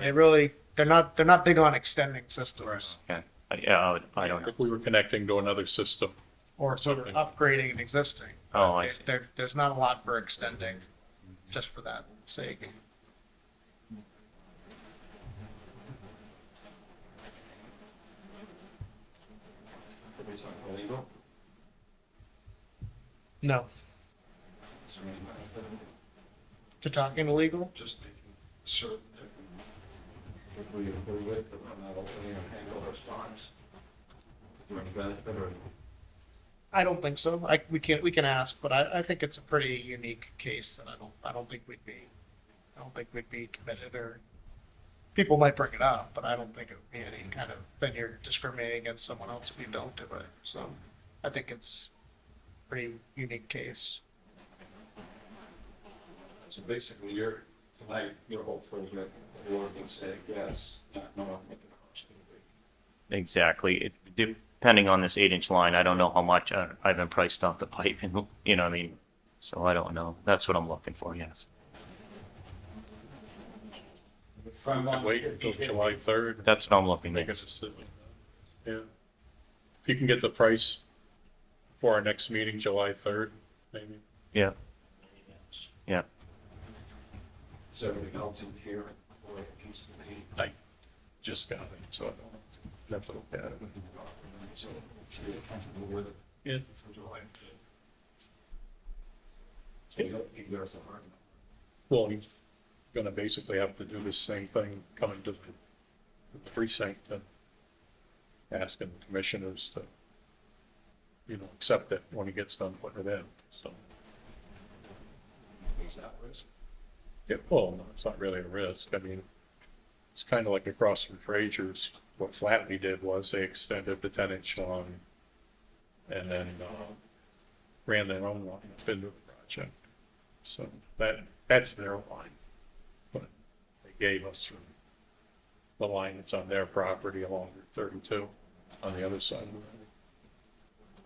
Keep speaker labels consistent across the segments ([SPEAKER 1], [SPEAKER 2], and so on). [SPEAKER 1] They really, they're not, they're not big on extending systems
[SPEAKER 2] Okay. I- Yeah, I would- I don't know.
[SPEAKER 3] If we were connecting to another system,
[SPEAKER 1] or sort of upgrading an existing.
[SPEAKER 2] Oh, I see.
[SPEAKER 1] There, there's not a lot for extending, just for that sake. No. To talking illegal?
[SPEAKER 4] just making certain that we approve it, that we're not opening a Pandora's box. Do you benefit or?
[SPEAKER 1] I don't think so. I, we can, we can ask, but I, I think it's a pretty unique case and I don't, I don't think we'd be, I don't think we'd be committed or people might bring it up, but I don't think it would be any kind of, then you're discriminating against someone else if you don't do it. So I think it's a pretty unique case.
[SPEAKER 4] So basically, you're, tonight, you're hopeful that the board can say yes, not knowing what the cost will be.
[SPEAKER 2] Exactly. It- Depending on this eight inch line, I don't know how much I- I've been priced off the pipe and, you know what I mean? So I don't know. That's what I'm looking for, yes.
[SPEAKER 4] If I'm not-
[SPEAKER 3] wait until July third,
[SPEAKER 2] That's what I'm looking
[SPEAKER 3] make a
[SPEAKER 2] at.
[SPEAKER 3] decision. Yeah. If you can get the price for our next meeting, July third, maybe.
[SPEAKER 2] Yeah. Yeah.
[SPEAKER 4] Is everything else in here, or it needs to be?
[SPEAKER 3] I just got it, so I don't have to look at it.
[SPEAKER 4] So, so you're comfortable with it
[SPEAKER 3] Yeah,
[SPEAKER 4] for July? So you don't, you give us a hard number.
[SPEAKER 3] well, he's gonna basically have to do the same thing coming to the precinct and asking the commissioners to, you know, accept it when he gets done putting it in, so.
[SPEAKER 4] Is that risk?
[SPEAKER 3] Yeah, well, no, it's not really a risk. I mean, it's kind of like across from Frazier's. What Flatley did was they extended the ten inch line and then, uh, ran their own line up into the project. So that, that's their line. But they gave us the line that's on their property along Route thirty-two on the other side of the road.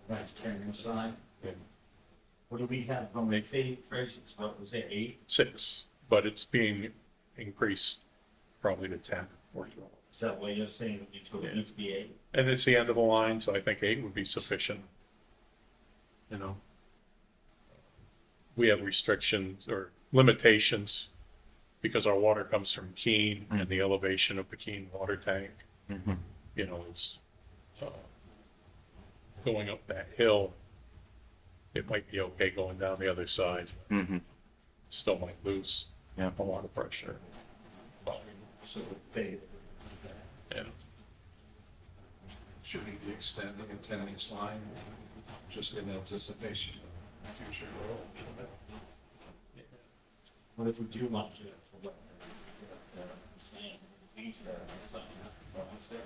[SPEAKER 5] That's ten inside. What do we have from the fate phrases, what was it, eight,
[SPEAKER 3] Six, but it's being increased probably to ten or twelve.
[SPEAKER 5] is that what you're saying, it's going to be eight?
[SPEAKER 3] And it's the end of the line, so I think eight would be sufficient. You know? We have restrictions or limitations because our water comes from Keene and the elevation of the Keene water tank,
[SPEAKER 2] Mhm.
[SPEAKER 3] you know, is uh, going up that hill. It might be okay going down the other side,
[SPEAKER 2] Mhm.
[SPEAKER 3] still might lose
[SPEAKER 2] Yeah.
[SPEAKER 3] a lot of pressure.
[SPEAKER 5] So they,
[SPEAKER 3] And
[SPEAKER 4] Should we be extending a ten inch line just in anticipation of future growth?
[SPEAKER 5] what if we do want to get for what? uh, Same, each of them, so, what was that?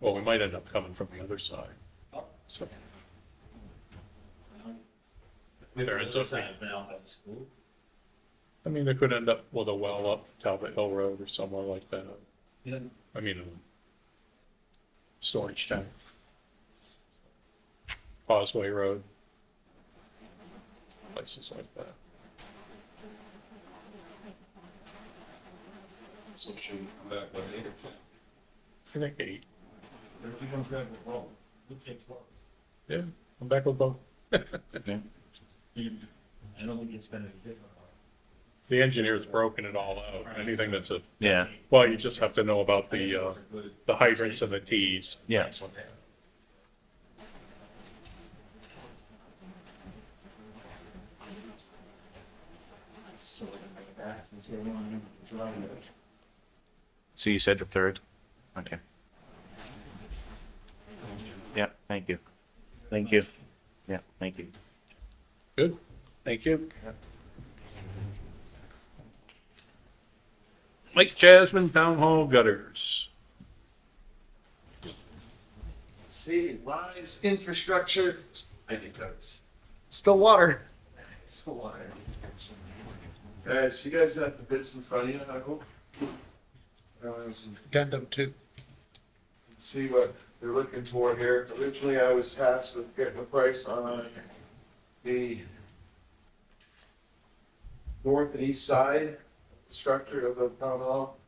[SPEAKER 3] Well, we might end up coming from the other side. So,
[SPEAKER 5] This
[SPEAKER 3] Fair,
[SPEAKER 5] is
[SPEAKER 3] it's
[SPEAKER 5] the
[SPEAKER 3] okay.
[SPEAKER 5] side now by the school,
[SPEAKER 3] I mean, they could end up with a well up Talbot Hill Road or somewhere like that.
[SPEAKER 5] Yeah.
[SPEAKER 3] I mean, um, storage tank. Causeway Road. Places like that.
[SPEAKER 4] So should we come back with eight or ten?
[SPEAKER 3] I think eight.
[SPEAKER 5] everyone's got a role, we take four.
[SPEAKER 3] Yeah, I'm back with both.
[SPEAKER 5] I don't think it's gonna be different.
[SPEAKER 3] The engineer's broken it all out. Anything that's a,
[SPEAKER 2] Yeah,
[SPEAKER 3] well, you just have to know about the, uh, the hydrants and the Ts.
[SPEAKER 2] yeah.
[SPEAKER 5] So we're gonna make it back, since everyone driving it.
[SPEAKER 2] So you said the third? Okay. Yeah, thank you. Thank you. Yeah, thank you.
[SPEAKER 3] Good. Thank you. Lake Jasmine Town Hall gutters.
[SPEAKER 4] See, lines.
[SPEAKER 1] Infrastructure,
[SPEAKER 4] I think that's,
[SPEAKER 1] still water.
[SPEAKER 4] it's a line. Guys, you guys have the bits in front of you, I hope. Uh,
[SPEAKER 1] Addendum two.
[SPEAKER 4] see what they're looking for here. Originally, I was tasked with getting a price on the north and east side structure of the town hall.